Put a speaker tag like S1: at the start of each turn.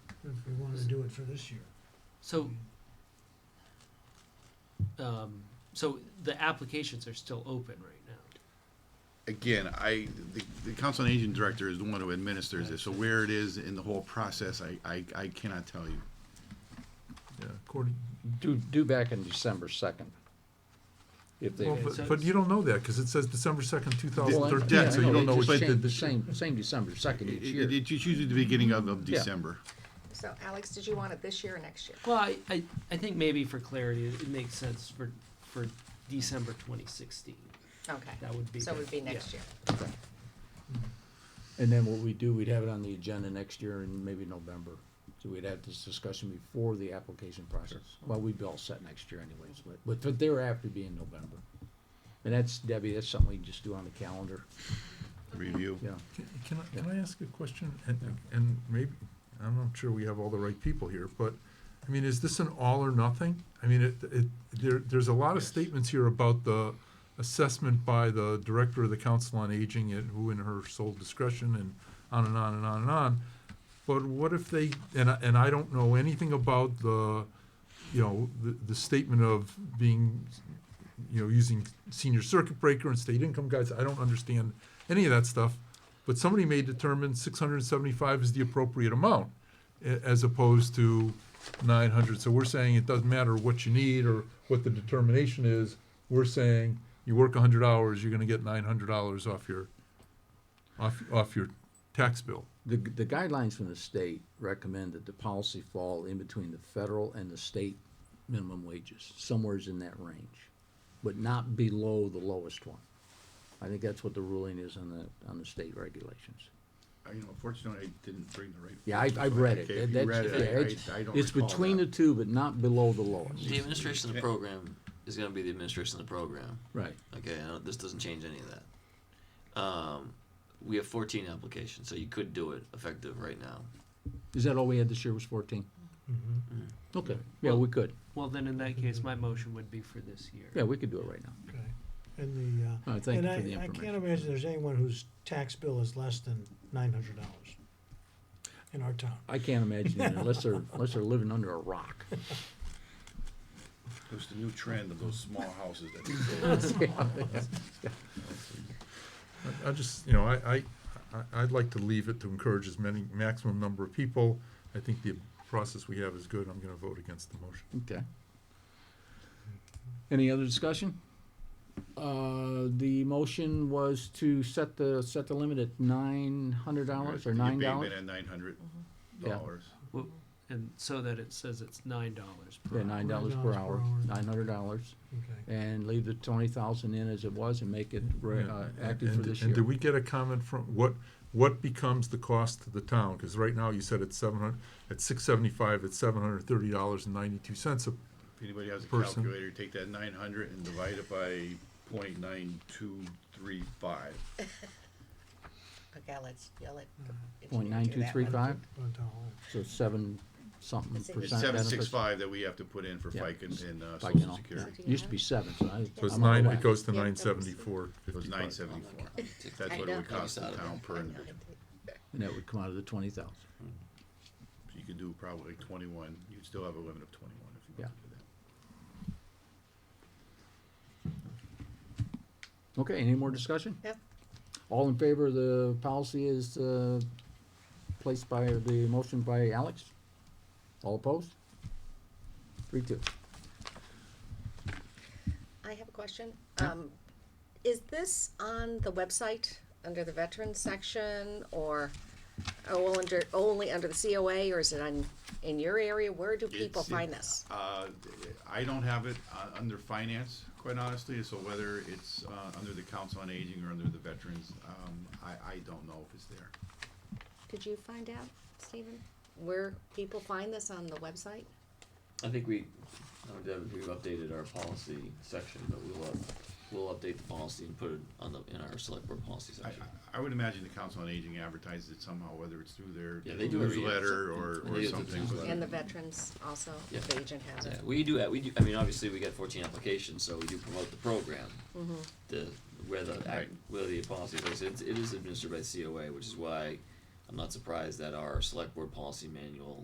S1: do it for this year.
S2: So, um, so the applications are still open right now.
S3: Again, I, the, the council on aging director is the one who administers this, so where it is in the whole process, I, I, I cannot tell you.
S4: Yeah, according,
S5: Due, due back in December second. If they,
S4: well,
S2: it
S4: but,
S2: says-
S4: but you don't know that, cause it says December second, two thousand
S5: Well, I-
S3: dead,
S5: yeah,
S4: thirteen,
S3: so
S4: so
S3: you
S5: no,
S3: don't
S4: you don't
S5: they
S4: know
S3: know
S4: what
S5: just
S4: they
S5: change
S4: did
S5: the
S4: this year.
S5: Same, same December second
S3: It,
S5: each
S3: it,
S5: year.
S3: it's usually the beginning of, of
S5: Yeah.
S3: December.
S6: So Alex, did you want it this year or next year?
S2: Well, I, I, I think maybe for clarity, it makes sense for, for December twenty sixteen.
S6: Okay.
S2: That would be
S6: So it would
S2: good,
S6: be
S2: yeah.
S6: next year.
S5: And then what we do, we'd have it on the agenda next year and maybe November. So we'd have this discussion before the application process. Well, we'd be all set next year anyways, but, but for thereafter being November. And that's, Debbie, that's something we just do on the calendar,
S3: Review.
S5: yeah.
S4: Can, can I, can I ask a question? And, and maybe, I'm not sure we have all the right people here, but, I mean, is this an all or nothing? I mean, it, it, there, there's a lot of statements here about the assessment by the director of the Council on Aging and who in her sole discretion and on and on and on and on. But what if they, and I, and I don't know anything about the, you know, the, the statement of being, you know, using senior circuit breaker and state income guides, I don't understand any of that stuff. But somebody may determine six hundred and seventy-five is the appropriate amount, a- as opposed to nine hundred. So we're saying it doesn't matter what you need or what the determination is, we're saying you work hundred hours, you're gonna get nine hundred dollars off your, off, off your tax bill.
S5: The, the guidelines from the state recommend that the policy fall in between the federal and the state minimum wages, somewhere's in that range, but not below the lowest one. I think that's what the ruling is on the, on the state regulations.
S3: I, you know, unfortunately, I didn't bring the right.
S5: Yeah, I, I've read it.
S3: Okay, if you
S5: That's-
S3: read it, I-
S5: yeah, it's-
S3: I- I don't
S5: It's
S3: recall
S5: between the
S3: that.
S5: two, but not below the lowest.
S7: The administration of
S3: Yeah.
S7: the program is going to be the administration of the program.
S5: Right.
S7: Okay, I don't- this doesn't change any of that. Um, we have 14 applications, so you could do it effective right now.
S5: Is that all we had this year was fourteen? Okay, yeah, we could.
S2: Well, then in that case, my motion would be for this year.
S5: Mm-hmm. Yeah, we could do it right now.
S1: Okay, and the, uh.
S5: All right, Oh,
S1: and
S5: thank you for
S1: I-
S5: the
S1: I can't
S5: information.
S1: imagine there's anyone whose tax bill is less than nine hundred dollars in our town.
S5: I can't imagine it unless they're, unless they're living under a rock.
S3: It was the new trend of those small houses that they sold.
S4: I- I just, you know, I, I, I- I'd like to leave it to encourage as many, maximum number of people. I think the process we have is good. I'm gonna vote against the motion.
S5: Okay. Any other discussion? Uh, the motion was to set the, set the limit at nine hundred dollars or
S3: Your
S5: nine
S3: payment
S5: dollars? Mm-hmm.
S3: at nine hundred
S5: Yeah.
S3: dollars.
S2: Well, And so that it says it's nine dollars per
S5: Yeah,
S2: hour.
S5: nine dollars per
S1: $9 per
S5: hour,
S1: hour.
S5: nine hundred dollars,
S1: Okay.
S5: and leave the twenty thousand in as it was and make it, re-
S4: Yeah,
S5: uh,
S4: and-
S5: active for
S4: and-
S5: this
S4: And did
S5: year.
S4: we get a comment from, what, what becomes the cost to the town? Cause right now you said it's seven hundred, at six seventy-five, it's seven hundred thirty dollars and ninety-two cents.
S3: If anybody has a
S4: Person.
S3: calculator, take that nine hundred and divide it by point nine two three five.
S6: Okay, let's, yeah, let. the
S2: Mm-hmm.
S5: Point
S6: engineer
S5: nine
S6: do
S5: two
S6: that
S5: three
S6: one.
S5: five,
S1: Run town hall.
S5: so seven something
S6: It's
S5: percent
S3: It's seven six
S5: benefits.
S3: five that we have to put in for
S5: Yeah.
S3: FICA and- and, uh,
S5: If I can
S3: social
S5: all-
S3: security.
S5: yeah. Used to be seven, so I.
S4: So it's
S5: I'm out of
S4: nine, it
S5: whack.
S4: goes to
S6: Yeah,
S4: nine
S6: that was-
S4: seventy-four
S3: It was nine
S4: fifty-five.
S3: seventy-four.
S7: Take-
S3: That's
S6: I
S3: what it would
S6: know.
S3: cost the town per individual.
S5: And that would come out of the twenty thousand.
S3: So You could do probably twenty-one, you'd still have a limit of twenty-one if you want to do that.
S5: Okay, any more discussion?
S6: Yep.
S5: All in favor of the policy is, uh, placed by, the motion by Alex? All opposed? Three, two.
S6: I have a question. Um, is this on the website, under the veterans section, or, or under, only under the COA, or is it on, in your area? Where do people
S3: It's-
S6: find this?
S3: Uh, I don't have it uh, under finance, quite honestly, so whether it's uh, under the council on aging or under the veterans, um, I, I don't know if it's there.
S6: Could you find out, Stephen? Where people find this on the website?
S7: I think we, I don't know, Deb, if we've updated our policy section, but we will, we'll update the policy and put it on the, in our select board policy
S3: I,
S7: section.
S3: I- I would imagine the council on aging advertises it somehow, whether it's through their
S7: Yeah, they do every year.
S3: newsletter or,
S7: They
S3: or
S7: do the
S3: something. but-
S7: newsletter.
S6: And the veterans also,
S7: Yeah.
S6: the agent has
S7: Yeah,
S6: it.
S7: we do, we do, I mean, obviously, we get 14 applications, so we do promote the program. The, where the,
S3: Right.
S7: act- where the policy is, it's, it is administered by COA, which is why I'm not surprised that our select board policy manual